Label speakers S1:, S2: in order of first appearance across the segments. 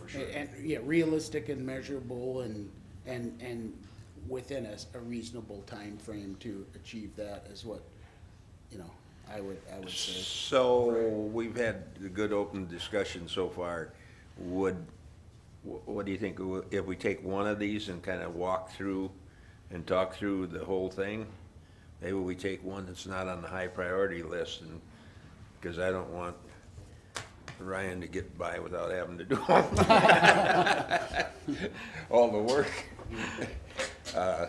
S1: for sure.
S2: And, and, yeah, realistic and measurable and, and, and within a, s- a reasonable timeframe to achieve that is what, you know, I would, I would say.
S3: So, we've had a good open discussion so far. Would, wh- what do you think, if we take one of these and kind of walk through and talk through the whole thing? Maybe we take one that's not on the high priority list and, because I don't want Ryan to get by without having to do all all the work. Uh,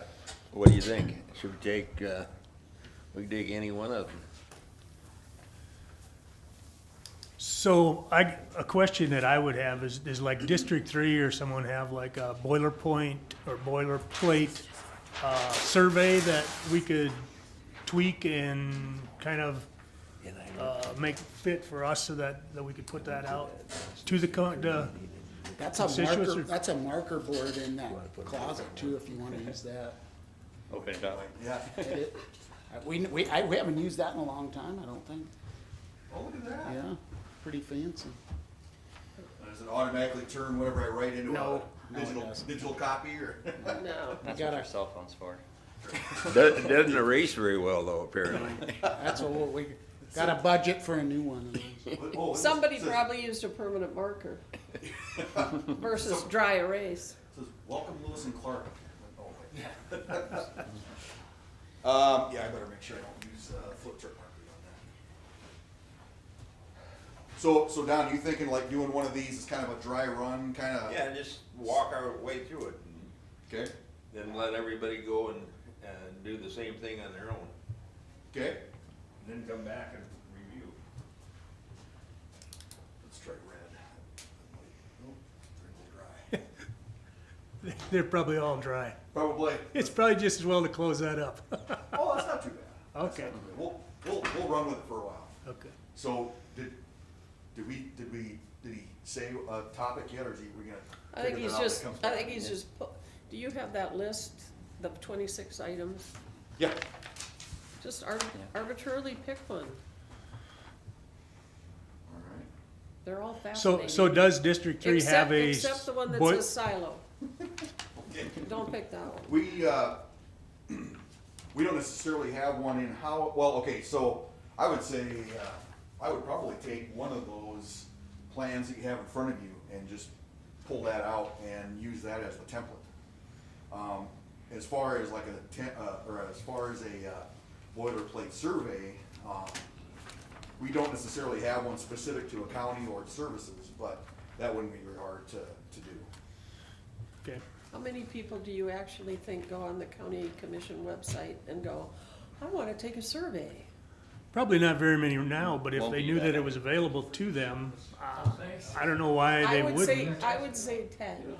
S3: What do you think? Should we take, uh, we can take any one of them?
S4: So I, a question that I would have is, is like District Three or someone have like a boiler point or boilerplate, uh, survey that we could tweak and kind of,
S3: And I
S4: uh, make fit for us so that, that we could put that out to the, co- the,
S2: That's a
S4: Constituents
S2: marker,
S4: are-
S2: that's a marker board in that closet too, if you wanna use that.
S1: Open it up.
S5: Yeah.
S2: It- I- We, we, I, we haven't used that in a long time, I don't think.
S5: Oh, look at that.
S2: Yeah, pretty fancy.
S5: Does it automatically turn whatever I write into
S2: No,
S5: a
S2: no, it
S5: digital,
S2: doesn't.
S5: digital copy or?
S6: No.
S2: You
S1: That's what your
S2: gotta,
S1: cell phone's for.
S3: Doesn't, doesn't erase very well though, apparently.
S2: that's what we, gotta budget for a new one. of those.
S5: Oh, it's-
S6: Somebody
S5: it says-
S6: probably used a permanent marker versus dry erase.
S5: it Says, welcome Lewis and Clark. Oh, wait. Um, yeah, I better make sure I don't use, uh, flip chart markers on that. So, so Don, you thinking like doing one of these is kind of a dry run, kind of?
S3: Yeah, just walk our way through it and
S5: Okay,
S3: then let everybody go and, and do the same thing on their own.
S5: okay,
S3: Then come back and review.
S5: let's try red. Nope, they're a little dry.
S4: they're probably all dry.
S5: Probably.
S4: It's probably just as well to close that up.
S5: Oh, that's not too bad.
S4: Okay,
S5: We'll, we'll, we'll run with it for a while.
S4: okay.
S5: So, did, did we, did we, did he say a topic yet, or is he, we gonna?
S6: I think
S5: figure that
S6: he's
S5: out when it
S6: just,
S5: comes
S6: I
S5: back?
S6: think he's just, pu- do you have that list, the twenty-six items?
S5: Yeah,
S6: Just ar- arbitrarily pick one.
S5: alright.
S6: They're all
S4: So,
S6: fascinating.
S4: so does District Three
S6: Except-
S4: have a?
S6: Except the one that
S4: boi-
S6: says silo. Don't pick that one.
S5: We, uh, we don't necessarily have one in how, well, okay, so I would say, uh, I would probably take one of those plans that you have in front of you and just pull that out and use that as the template. Um, as far as like a ten, uh, or as far as a, uh, boilerplate survey, um, we don't necessarily have one specific to a county or its services, but that wouldn't be very hard to, to do.
S4: Okay.
S6: How many people do you actually think go on the county commission website and go, I wanna take a survey?
S4: Probably not very many now, but if
S1: Won't
S4: they
S1: be
S4: knew
S1: that
S4: that it was available to them, uh, I don't know why
S6: I
S4: they
S6: would say,
S4: wouldn't.
S6: I would say ten.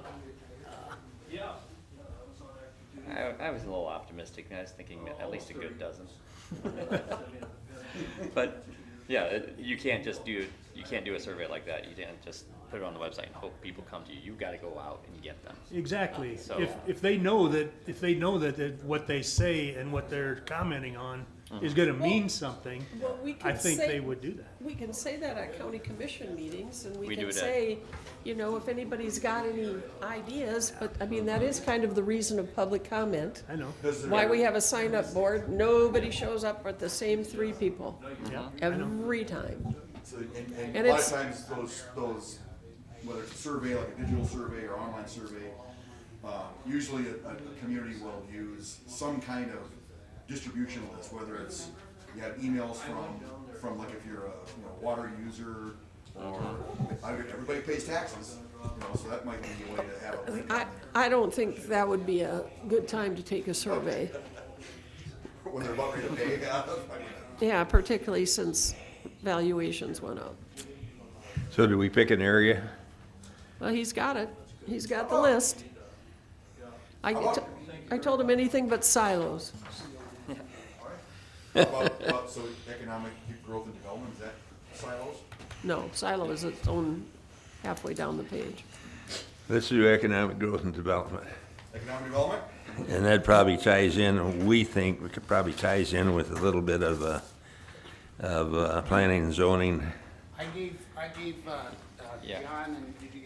S1: I, I was a little optimistic, and I was thinking at least a good dozen. But, yeah, it- you can't just do, you can't do a survey like that, you can't just put it on the website and hope people come to you, you gotta go out and get them.
S4: Exactly.
S1: Uh, So-
S4: If, if they know that, if they know that, that what they say and what they're commenting on is
S1: Uh-huh.
S4: gonna mean something,
S6: Well, we can
S4: I think
S6: say-
S4: they would do that.
S6: We can say that at county commission meetings, and
S1: We
S6: we
S1: do
S6: can
S1: that.
S6: say, you know, if anybody's got any ideas, but, I mean, that is kind of the reason of public comment.
S4: I know,
S5: Does there-
S6: Why we have a sign-up board, nobody shows up but the same three people,
S4: yeah.
S6: every time.
S5: So, and, and,
S6: And
S5: a lot of
S6: it's-
S5: times those, those, whether it's a survey, like a digital survey or online survey, um, usually a, a, a community will use some kind of distribution list, whether it's, you have emails from, from like if you're a, you know, water user or, I mean, everybody pays taxes, you know, so that might be a way to have a link
S6: I,
S5: on
S6: I don't think that would be a good time to take a survey.
S5: there, when they're about ready to pay. I mean,
S6: Yeah, particularly since valuations went up.
S3: So do we pick an area?
S6: Well, he's got it. He's got the list. I, t- I told him anything but silos.
S5: about- about- So economic growth and development, is that silos?
S6: No, silo is its own halfway down the page.
S3: Let's do economic growth and development.
S5: Economic development?
S3: And that probably ties in, we think, it probably ties in with a little bit of, uh, of, uh, planning and zoning.
S2: I gave, I gave, uh, uh,
S1: Yeah.
S2: John and, did you